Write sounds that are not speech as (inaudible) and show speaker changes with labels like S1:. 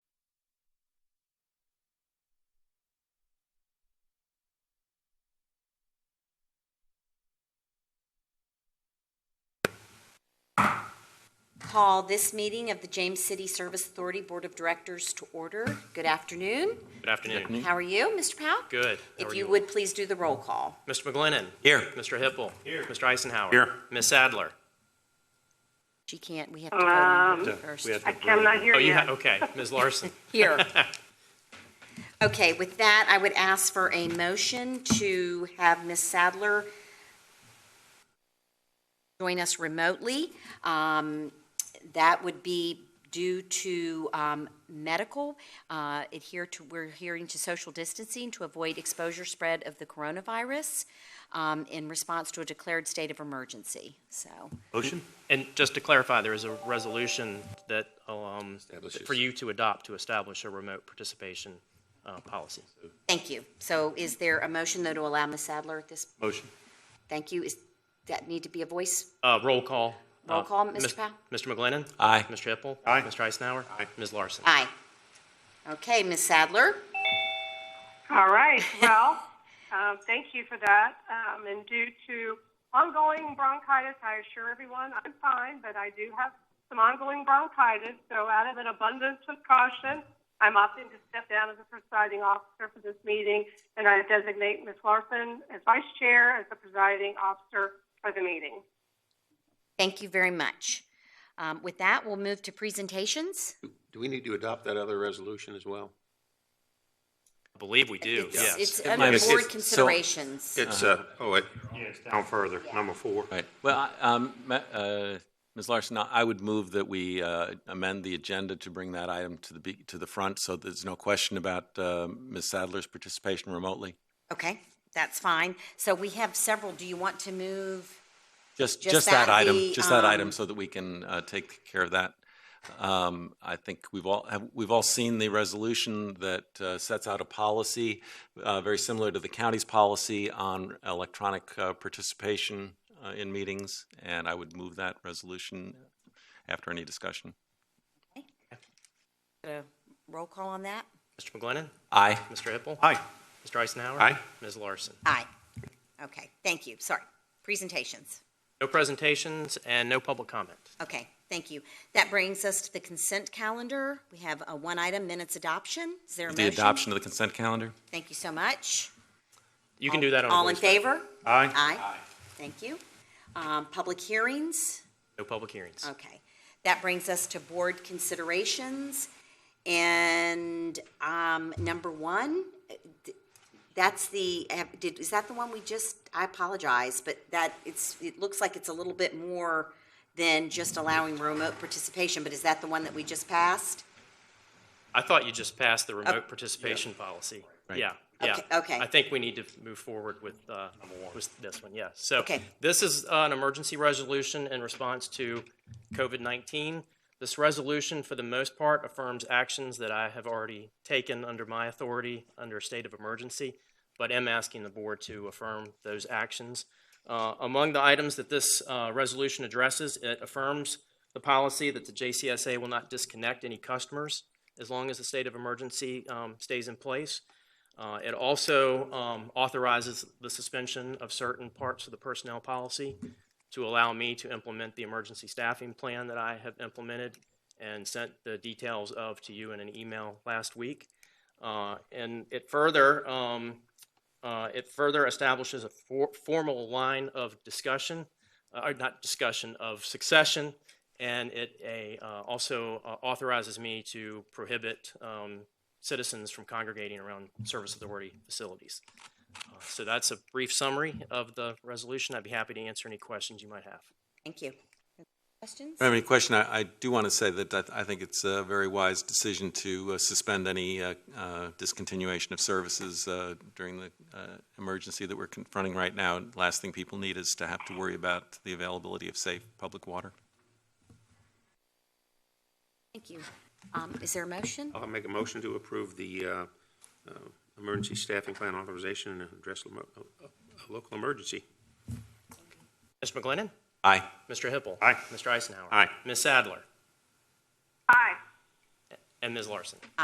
S1: call this meeting of the James City Service Authority Board of Directors to order. Good afternoon.
S2: Good afternoon.
S1: How are you, Mr. Powell?
S2: Good. How
S1: If
S2: are
S1: you would please do the roll call.
S2: Mr. McGlinnan.
S3: Here.
S2: Mr. Hippel. Here. Mr. Eisenhower.
S3: Here.
S2: Ms. Sadler.
S1: She can't, we have to vote on her first.
S4: I cannot hear
S2: Oh, you
S4: you.
S2: ha
S1: (laughs)
S2: okay. Ms. Larson.
S1: Here. (laughs) Okay, with that, I would ask for a motion to have Ms. Sadler join us remotely. Um, That would be due to um, medical, uh, adhere to, we're adhering to social distancing to avoid exposure spread of the coronavirus um, in response to a declared state of emergency, so.
S3: Motion?
S2: And just to clarify, there is a resolution that, um,
S3: Establishes.
S2: for you to adopt to establish a remote participation, uh, policy.
S1: Thank you. So is there a motion, though, to allow Ms. Sadler at this
S3: Motion.
S1: Thank you. Is that need to be a voice?
S2: Uh, roll call.
S1: Roll
S2: Uh,
S1: call, Mr.
S2: Mis-
S1: Powell?
S2: Mr. McGlinnan.
S3: Aye.
S2: Mr. Hippel.
S3: Aye.
S2: Mr. Eisenhower. Aye. Ms. Larson.
S1: Aye. Okay, Ms. Sadler?
S4: All right, well, (laughs) um, thank you for that. Um, and due to ongoing bronchitis, I assure everyone I'm fine, but I do have some ongoing bronchitis. So, out of an abundance of caution, I'm opting to step down as the presiding officer for this meeting, and I designate Ms. Larson as vice chair as the presiding officer for the meeting.
S1: Thank you very much. Um, With that, we'll move to presentations.
S5: Do we need to adopt that other resolution as well?
S2: I believe we do,
S1: It's-
S2: yes.
S1: It's under
S3: it's-
S1: board
S5: it's- so-
S1: considerations.
S5: It's, uh,
S6: Uh-huh.
S5: oh, it,
S6: Down further, number four.
S3: Right.
S7: Well, I- um, Ma- uh, Ms. Larson, I I would move that we uh, amend the agenda to bring that item to the, be- to the front so there's no question about uh, Ms. Sadler's participation remotely.
S1: Okay, that's fine. So we have several. Do you want to move?
S7: Just,
S1: Just
S7: just that
S1: that
S7: item,
S1: the,
S7: just that
S1: um,
S7: item so that we can uh, take care of that. Um, I think we've all, have- we've all seen the resolution that uh, sets out a policy uh, very similar to the county's policy on electronic uh, participation uh, in meetings, and I would move that resolution after any discussion.
S1: a Roll call on that?
S2: Mr. McGlinnan.
S7: Aye.
S2: Mr. Hippel.
S6: Aye.
S2: Mr. Eisenhower.
S6: Aye.
S2: Ms. Larson.
S1: Aye. Okay, thank you. Sorry. Presentations.
S2: No presentations and no public comment.
S1: Okay, thank you. That brings us to the consent calendar. We have a one item, minutes adoption. Is there a
S7: The
S1: motion?
S7: adoption of the consent calendar?
S1: Thank you so much.
S2: You can do that on a
S1: All in
S2: voice vote.
S1: favor?
S6: Aye.
S1: Aye. Thank you. Um, Public hearings?
S2: No public hearings.
S1: Okay. That brings us to board considerations. And um, number one, that's the, did, is that the one we just, I apologize, but that, it's, it looks like it's a little bit more than just allowing remote participation, but is that the one that we just passed?
S2: I thought you just passed the remote participation policy. Yeah, yeah.
S1: Uh, Okay, okay.
S2: I think we need to move forward with, uh, with this one, yeah. So
S1: Okay.
S2: this is uh, an emergency resolution in response to COVID-19. This resolution, for the most part, affirms actions that I have already taken under my authority under a state of emergency, but am asking the board to affirm those actions. Uh, Among the items that this uh, resolution addresses, it affirms the policy that the JCSA will not disconnect any customers as long as the state of emergency um, stays in place. Uh, It also um, authorizes the suspension of certain parts of the personnel policy to allow me to implement the emergency staffing plan that I have implemented and sent the details of to you in an email last week. Uh, And it further, um, uh, it further establishes a for- formal line of discussion, uh, or not discussion, of succession, and it a, uh, also uh, authorizes me to prohibit um, citizens from congregating around service authority facilities. Uh, So that's a brief summary of the resolution. I'd be happy to answer any questions you might have.
S1: Thank you. Questions?
S7: I don't have any question. I, I do want to say that I, I think it's a very wise decision to uh, suspend any uh, uh, discontinuation of services uh, during the uh, emergency that we're confronting right now. Last thing people need is to have to worry about the availability of safe public water.
S1: Thank you. Um, Is there a motion?
S6: I'll
S5: make a motion to approve the, uh, uh, emergency staffing plan authorization and address lemo- a, a- a local emergency.
S2: Mr. McGlinnan?
S7: Aye.
S2: Mr. Hippel?
S6: Aye.
S2: Mr. Eisenhower?
S6: Aye.
S2: Ms. Sadler?
S4: Aye.
S2: And Ms. Larson?